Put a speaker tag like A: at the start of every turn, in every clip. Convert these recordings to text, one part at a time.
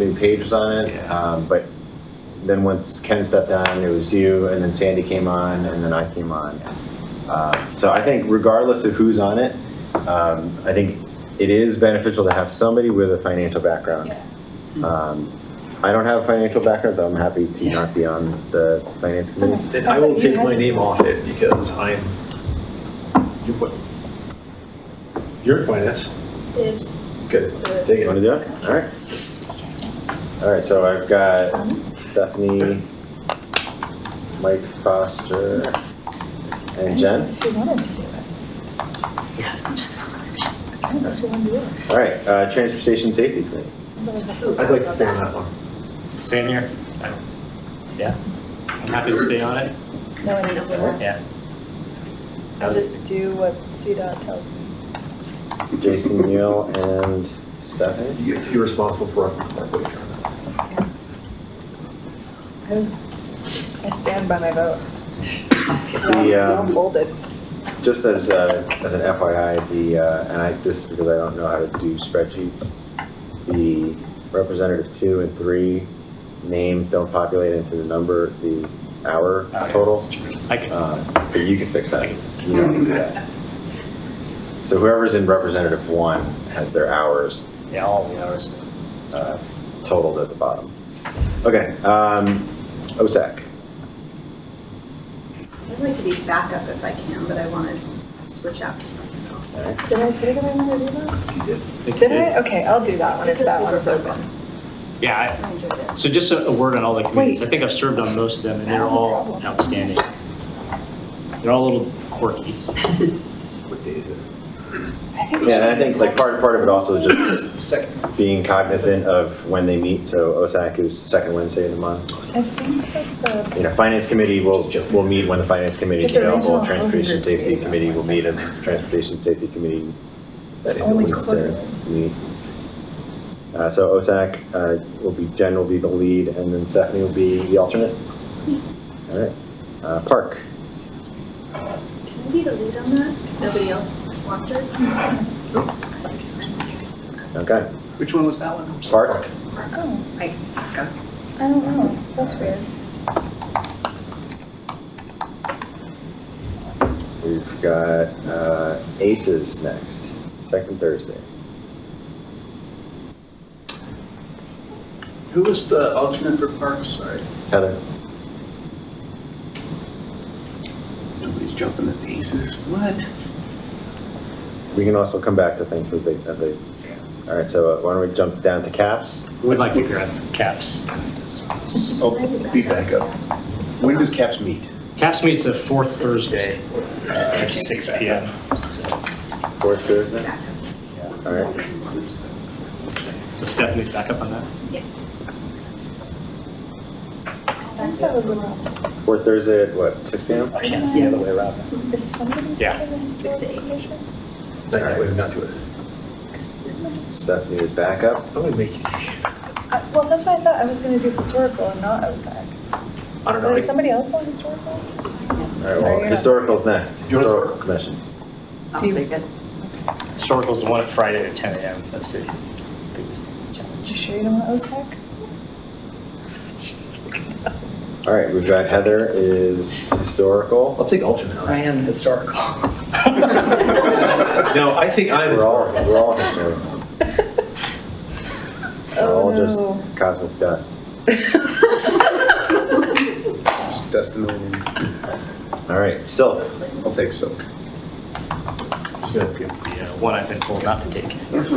A: new pages on it.
B: Yeah.
A: Um, But then once Ken stepped down, it was you, and then Sandy came on, and then I came on. Uh, So I think regardless of who's on it, um, I think it is beneficial to have somebody with a financial background. Um, I don't have a financial background, so I'm happy to not be on the finance committee.
C: Okay.
B: Then I will take my name off it because I'm, you put, you're in finance.
C: Dibs.
B: Good, take
A: You want to
B: it.
A: do it? All right. All right, so I've got Stephanie, Mike Foster, and Jen.
C: She wanted to do it. I don't know if she wanted to do it.
A: All right, uh, transportation safety committee.
B: I'd like to stay on that one.
D: Same here. I- Yeah, I'm happy to stay on it.
C: No, I need to do that.
D: Yeah. That
C: I
D: was-
C: just do what CDOT tells me.
A: Jason Neal and Stephanie.
B: You get to be responsible for uh, our our wage on that.
C: I was, I stand by my vote.
A: The, um,
C: Hold it.
A: Just as, uh, as an FYI, the, uh, and I, this is because I don't know how to do spreadsheets, the representative two and three names don't populate into the number, the hour
D: Oh, yeah.
A: total.
D: I can,
A: Uh, But you can fix that. You don't have to do that. So whoever's in representative one has their hours
D: yeah, all the hours.
A: uh, totaled at the bottom. Okay, um, OSAC.
E: I'd like to be backup if I can, but I want to switch out to something else.
A: All right.
C: Did I say that I wanted to do that?
B: You did.
D: I think
C: Did
D: you
C: I? Okay, I'll do that one if
E: It's a
C: that
E: super
C: one's
E: fun
C: open.
D: Yeah,
E: I enjoyed it.
D: I- so just a a word on all the committees.
C: Wait.
D: I think I've served on most of them, and
C: That
D: they're
C: was a
D: all
C: problem.
D: outstanding. They're all a little quirky.
B: What day is it?
A: Yeah, and I think like part, part of it also is just
B: Second.
A: being cognizant of when they meet, so OSAC is second Wednesday of the month.
C: I think that the,
A: You know, Finance Committee will, will meet when the Finance Committee is
C: Just a
A: available,
C: regional
A: Transportation
C: housing
A: Safety
C: group.
A: Committee will meet, and Transportation Safety Committee
C: It's
A: that
C: only
A: meets their meet. Uh, So OSAC uh, will be, Jen will be the lead, and then Stephanie will be the alternate. All right, Uh, Park,
E: Can I be the lead on that? If Nobody else wants it?
A: okay,
B: Which one was that one?
A: Park,
C: oh,
E: Go.
C: I don't know. That's weird.
A: we've got uh, ACES next, second Thursdays.
F: Who was the alternate for Parks? Sorry,
A: Heather?
F: nobody's jumping at the aces. What?
A: We can also come back to things as they, as they, all right, so uh, why don't we jump down to caps?
D: Would like to grab caps.
F: Oh, be back up. When does Caps meet?
D: Caps meets the fourth Thursday at six PM.
A: Fourth Thursday? All right,
D: So Stephanie's back up on that.
C: I think that was the last.
A: fourth Thursday at what, six P M?
D: I can't see the other way around.
C: Is somebody
D: Yeah.
C: taking the historical
E: Six to eight.
C: commission?
B: Night, night, wait, not to it.
A: Stephanie is back up.
B: I'm gonna make you take it.
C: I- Well, that's why I thought I was going to do historical and not OSAC.
B: I don't know.
C: But Does
B: I-
C: somebody else want historical?
A: All right,
C: Sorry,
A: well,
C: you're not-
A: historical's next,
B: You want us-
A: historical commission.
G: I'll take it.
D: Historical's the one at Friday at ten AM. That's the biggest
C: You
D: challenge.
C: sure you don't want OSAC?
A: All right, we've got Heather is historical.
B: I'll take alternate. on
G: I
B: that.
G: am historical.
B: No, I think I'm
A: We're all,
B: historical.
A: we're all historical. We're all just
C: Oh,
A: cosmic dust.
F: Just dusting the wind.
A: All right, Silk,
F: I'll take Silk.
D: So it's gonna be, uh, One I've been told not to take.
G: But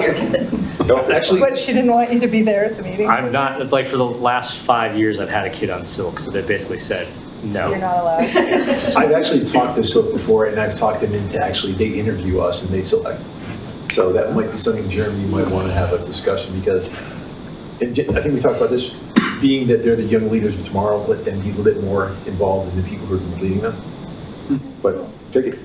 G: you're good.
A: Silk,
B: Actually,
C: What, she didn't want you to be there at the meeting?
D: I'm not, it's like, for the last five years, I've had a kid on silk, so they basically said,
C: You're
D: no.
C: not allowed.
B: I've actually talked to Silk before, and I've talked them into actually, they interview us and they select. So that might be something, Jeremy, you might want to have a discussion, because, and J- I think we talked about this, being that they're the young leaders of tomorrow, let them be a little bit more involved in the people who are leading them. But take it.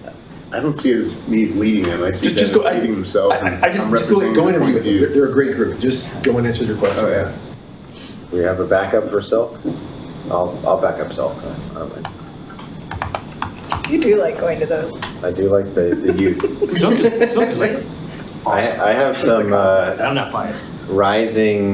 F: I don't see it as me leading them. I see
B: Just-
F: them
B: just
F: as
B: go- I-
F: leading themselves.
B: I-
F: and
B: I- I just,
F: I'm
B: just go,
F: representing
B: go
F: their
B: interview
F: point
B: with
F: of
B: them.
F: view.
B: They're- They're a great group. Just go and answer their questions.
F: Oh, yeah.
A: we have a backup for Silk? I'll, I'll back up Silk. I don't mind.
C: You do like going to those.
A: I do like the, the youth.
D: Silk is, silk is like I, I have some, uh,
A: I'm not biased.
D: rising